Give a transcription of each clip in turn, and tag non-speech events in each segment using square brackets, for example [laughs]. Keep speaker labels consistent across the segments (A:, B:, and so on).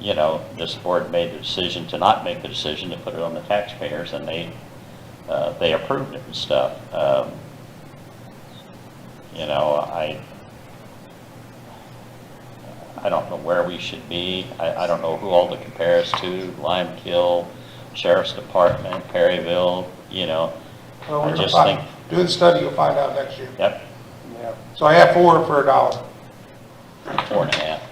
A: you know, this board made the decision to not make the decision to put it on the taxpayers, and they, uh, they approved it and stuff. Um, You know, I, I don't know where we should be, I, I don't know who all to compare us to, Lime Kill, Sheriff's Department, Perryville, you know.
B: Well,
A: I
B: we're gonna
A: just
B: find-
A: think,
B: Do the study, you'll find out next year.
A: yep,
B: So I have four for a dollar.
A: four and a half.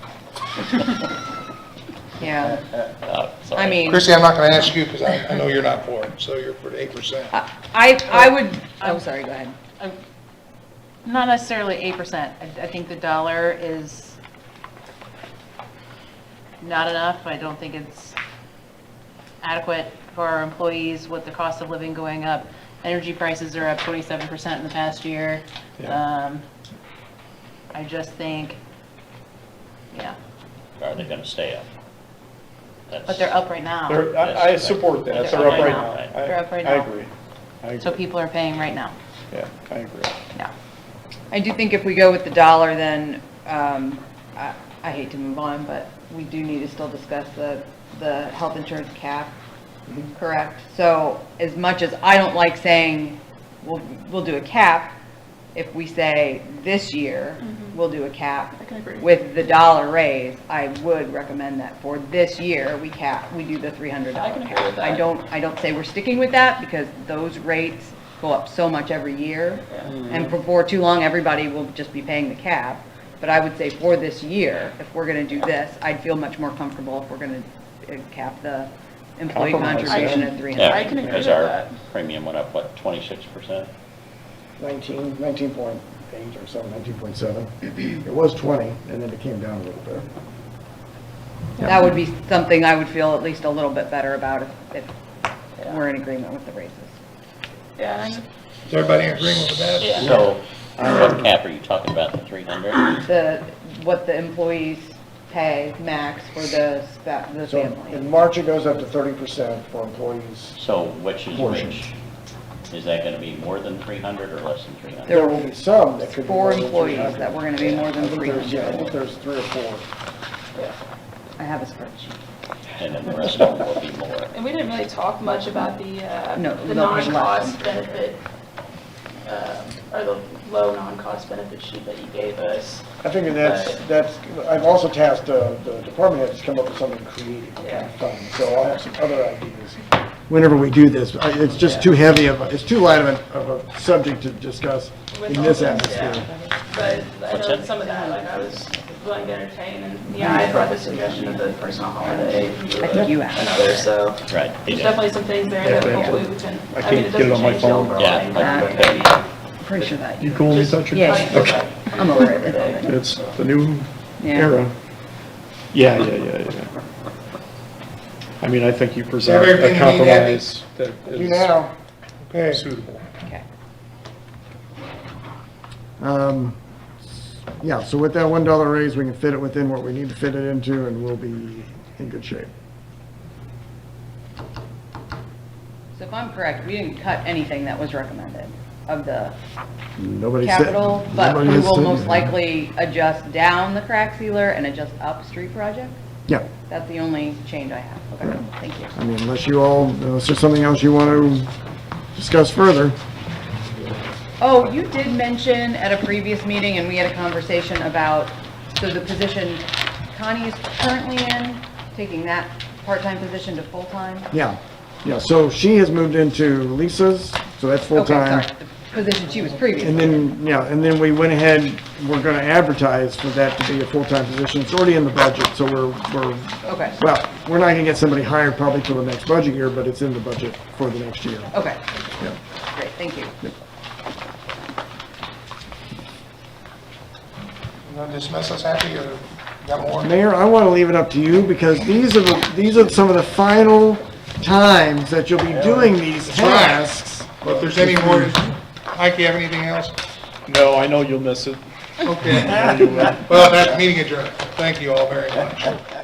C: Yeah,
A: Uh, sorry.
C: I mean,
B: Christie, I'm not gonna ask you, because I, I know you're not for it, so you're for eight percent.
C: I, I would, Uh, oh, sorry, go ahead.
D: Uh, Not necessarily eight percent. I, I think the dollar is not enough. I don't think it's adequate for our employees with the cost of living going up. Energy prices are up twenty-seven percent in the past year.
B: Yeah.
D: Um, I just think, yeah,
A: Are they gonna stay up? That's-
D: but they're up right now.
E: They're- I, I support that, they're up right now. I-
D: They're up right
E: I
D: now.
E: agree, I
D: So
E: agree,
D: people are paying right now.
E: yeah, I agree.
D: Yeah.
C: I do think if we go with the dollar, then, um, I, I hate to move on, but we do need to still discuss the, the health insurance cap, correct? So as much as I don't like saying, we'll, we'll do a cap, if we say this year, we'll do a cap
F: Mm-hmm. I can agree.
C: with the dollar raise, I would recommend that for this year, we cap, we do the three hundred dollar
F: I can
C: cap.
F: agree with
C: I
F: that.
C: don't, I don't say we're sticking with that because those rates go up so much every year. And before too long, everybody will just be paying the cap. But I would say for this year, if we're gonna do this, I'd feel much more comfortable if we're gonna uh, cap the employee
E: Compromise,
C: contribution
F: yeah.
C: at three
A: Yeah,
C: hundred.
F: I can agree
A: because
F: with
A: our
F: that.
A: Premium went up, what, twenty-six percent?
G: 19, 19.8 or so, 19.7. It was 20, and then it came down a little bit.
C: That would be something I would feel at least a little bit better about if, if we're in agreement with the raises.
F: Yeah, and
B: Is everybody in agreement with that?
F: Yeah.
A: So, what cap are you talking about, the three hundred?
C: the, what the employees pay max for the, spa- the
G: So
C: family.
G: in March, it goes up to 30% for employees.
A: So which is
G: Portion.
A: which? Is that gonna be more than three hundred or less than three hundred?
C: There-
G: There will be some that could be.
C: Four
G: more than
C: employees
G: 300.
C: that were gonna be more than
G: I think there's- Yeah, I
C: 300.
G: think there's three or four.
C: I have a spreadsheet.
A: And then the rest of them will be more.
F: and we didn't really talk much about the, uh,
C: No, the
F: the
C: low and
F: non-cost
C: low.
F: benefit, um, or the low non-cost benefit sheet that you gave us.
G: I figure that's, that's, I've also tasked uh, the department heads to come up with something creative
F: Yeah.
G: and fun, so I'll have some other ideas. Whenever we do this, I- it's just too heavy of, a- it's too light of a, of a subject to discuss
F: with
G: in
F: all
G: this
F: this,
G: atmosphere.
F: yeah. But I know some of that, like, I was willing to entertain,
E: Mm-hmm.
F: and, yeah, I brought the suggestion of the personal holiday.
C: I think you asked.
F: Another, so.
A: Right. they
F: There's
A: did.
F: definitely some things there that
E: Yeah, yeah.
F: hopefully we
E: I
F: can, I mean, it
E: can't get it
F: doesn't
E: on my
F: change the
E: phone.
F: overall
A: Yeah,
F: thing.
A: I-
F: but it could be-
C: Pretty sure that,
E: You cool with that,
C: Yeah.
E: Richard?
F: Okay.
C: I'm over it.
E: It's the new
C: Yeah.
E: era. Yeah, yeah, yeah, yeah. I mean, I think you present
B: Everything
E: a
B: you need, Abby.
E: compromise that
G: Do now.
E: is
B: Okay,
E: suitable.
C: Okay.
G: Um, Yeah, so with that one dollar raise, we can fit it within what we need to fit it into, and we'll be in good shape.
C: So if I'm correct, we didn't cut anything that was recommended of the
G: Nobody said.
C: capital, but
G: nobody
C: we
G: has
C: will
G: said
C: most
G: anything.
C: likely adjust down the crack sealer and adjust up street project.
G: Yeah,
C: That's the only change I have. Okay, thank you.
G: I mean, unless you all, unless there's something else you want to discuss further.
C: Oh, you did mention at a previous meeting, and we had a conversation about, so the position Connie is currently in, taking that part-time position to full-time?
G: Yeah, yeah, so she has moved into Lisa's, so that's
C: Okay,
G: full-time.
C: sorry, the position she was
G: And
C: previously.
G: then, yeah, and then we went ahead, we're going to advertise for that to be a full-time position. It's already in the budget, so we're, we're
C: Okay,
G: Well, we're not gonna get somebody hired probably till the next budget year, but it's in the budget for the next year.
C: okay,
G: Yeah.
C: great, thank you.
B: you gonna dismiss us happy or got more?
G: Mayor, I wanna leave it up to you, because these are the, these are some of the final times that you'll be doing these
B: right.
G: tasks.
B: Well, If there's any more, Mike, you have anything else?
E: No, I know you'll miss it.
B: [laughs] Okay. Well, that's meeting adjourned. Thank you all very much.